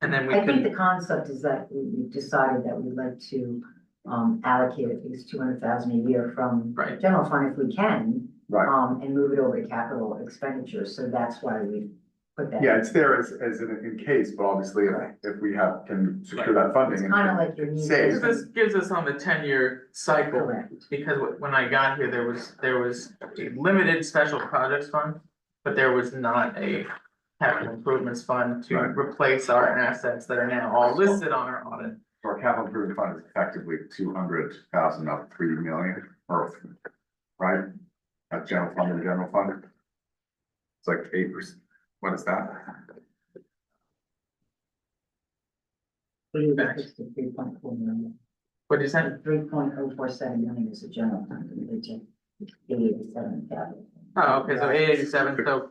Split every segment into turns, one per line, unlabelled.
And then we
I think the
could,
concept is that we we decided that we'd like to um allocate at least two hundred thousand a year from
right,
general fund if we can.
Right.
Um, and move it over to capital expenditures, so that's why we put that.
Yeah, it's there as, as in, in case, but obviously if, if we have, can secure that
It's
funding. and
kind of like your needs.
Save.
because this gives us on the ten-year cycle,
Correct,
because wh- when I got here, there was, there was a limited special projects fund. But there was not a capital improvements fund to
Right.
replace our assets that are now all listed on our audit.
Our capital improvement fund is effectively two hundred thousand of three million, or, right? That general fund and general fund. It's like eight percent, what is that?
we need
Correct.
three point four million,
What is that?
three point oh four seven million is a general fund, and we take eighty-seven capital.
Oh, okay, so eight eighty-seven, so,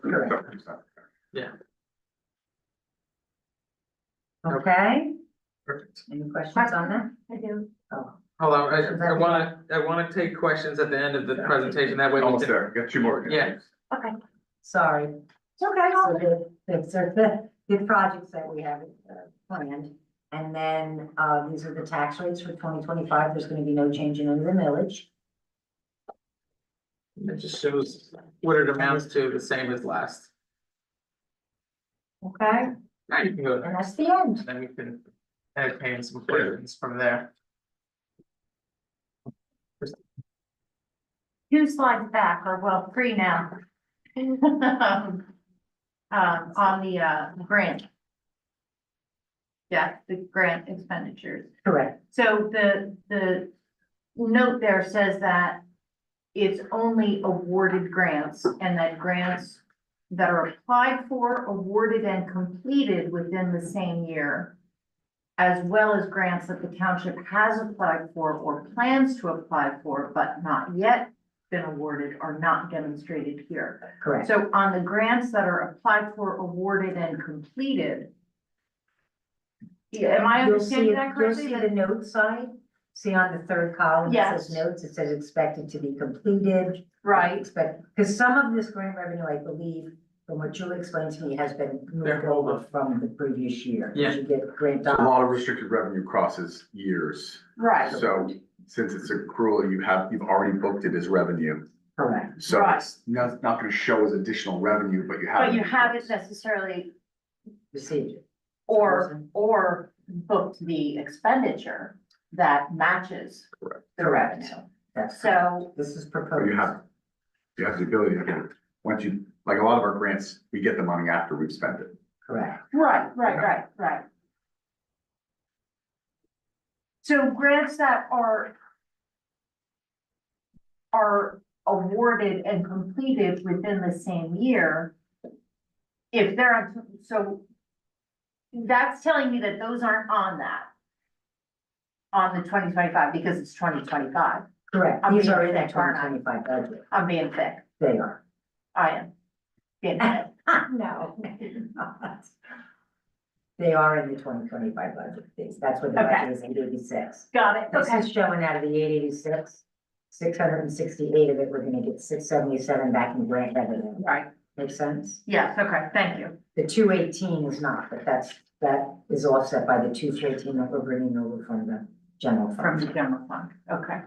Yeah, so percent.
Okay,
perfect.
any questions on that?
I do.
Oh,
Hold on, I, I wanna, I wanna take questions at the end of the presentation, that way we
Almost
can.
there, got two more.
Yeah.
sorry.
It's okay.
So the, the, so the, the projects that we have uh, planned. And then, uh, these are the tax rates for twenty twenty-five. There's gonna be no change in the millage.
It just shows what it amounts to, the same as last.
Okay,
Now you can go
and
there,
that's the end.
and then we can entertain some questions from there.
Two slides back, or well, three now. Um, on the, uh, grant. Yeah, the grant expenditures.
Correct.
So the, the note there says that it's only awarded grants and that grants that are applied for, awarded and completed within the same year, as well as grants that the township has applied for or plans to apply for, but not yet been awarded are not demonstrated here.
Correct.
So on the grants that are applied for, awarded and completed. Yeah, am I
You'll see-
understanding that correctly?
You'll see the note side. See on the third column, it says
Yes.
notes, it says expected to be completed.
Right,
Expect, because some of this grant revenue, I believe, from what Julie explained to me, has been moved
They're over.
over from the previous year. 'cause
Yeah.
You get grant
A
dollars.
lot of restricted revenue crosses years,
right,
so since it's accrual, you have, you've already booked it as revenue.
Correct.
So
Right.
it's not, not gonna show as additional revenue, but you have.
but you haven't necessarily
Received it.
or or booked the expenditure that matches the
Correct.
revenue.
That's,
So,
this is
Or
proposed.
you have, you have the ability to get it. Once you, like a lot of our grants, we get the money after we've spent it.
Correct.
right, right, right, right. So grants that are are awarded and completed within the same year. If they're, on so that's telling me that those aren't on that. On the twenty twenty-five, because it's twenty twenty-five,
Correct.
I'm
These
being
are in that
thick, aren't
twenty
I?
twenty-five budget.
I'm being thick,
They are.
I am. Being thick,
No. They are in the twenty twenty-five budget. These- That's what the
Okay.
budget is, eight eighty-six.
got it,
This
okay,
is showing out of the eight eighty-six, six hundred and sixty-eight of it, we're gonna get six seventy-seven back in grant revenue.
right,
Make sense?
yes, okay, thank you,
The two eighteen is not, but that's, that is offset by the two thirteen that we're bringing over from the general
from the
fund.
general fund, okay.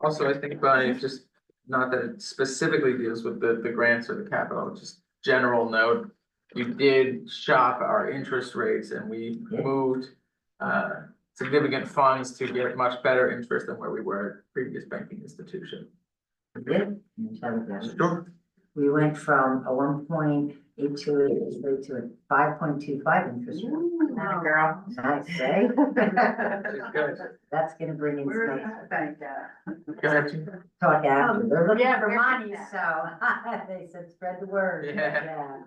Also, I think by just, not that it specifically deals with the, the grants or the capital, just general note. You did shop our interest rates and we moved, uh, significant funds to get much better interest than where we were at previous banking institution.
Yeah. And tell them that.
Sure.
We went from a one point eight two eight interest rate to a five point two five interest rate.
That girl.
Nice, eh?
Good.
That's gonna bring in some
Go ahead.
talk after. They're looking
Yeah,
for
we're
money,
that.
so they said, spread the word.
Yeah.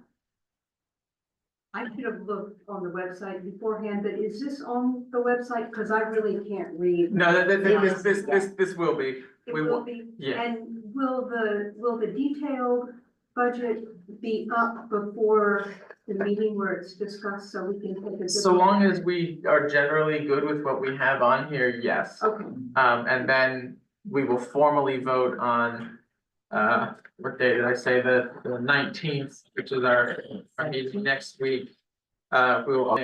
I should have looked on the website beforehand, but is this on the website? Because I really can't read.
No, that, that, this, this, this, this will be,
It
we
will
will,
be,
yeah,
and will the, will the detailed budget be up before the meeting where it's discussed so we can take a good?
so long as we are generally good with what we have on here, yes.
Okay,
Um, and then we will formally vote on, uh, what day did I say, the nineteenth, which is our, our meeting next week. Uh, we will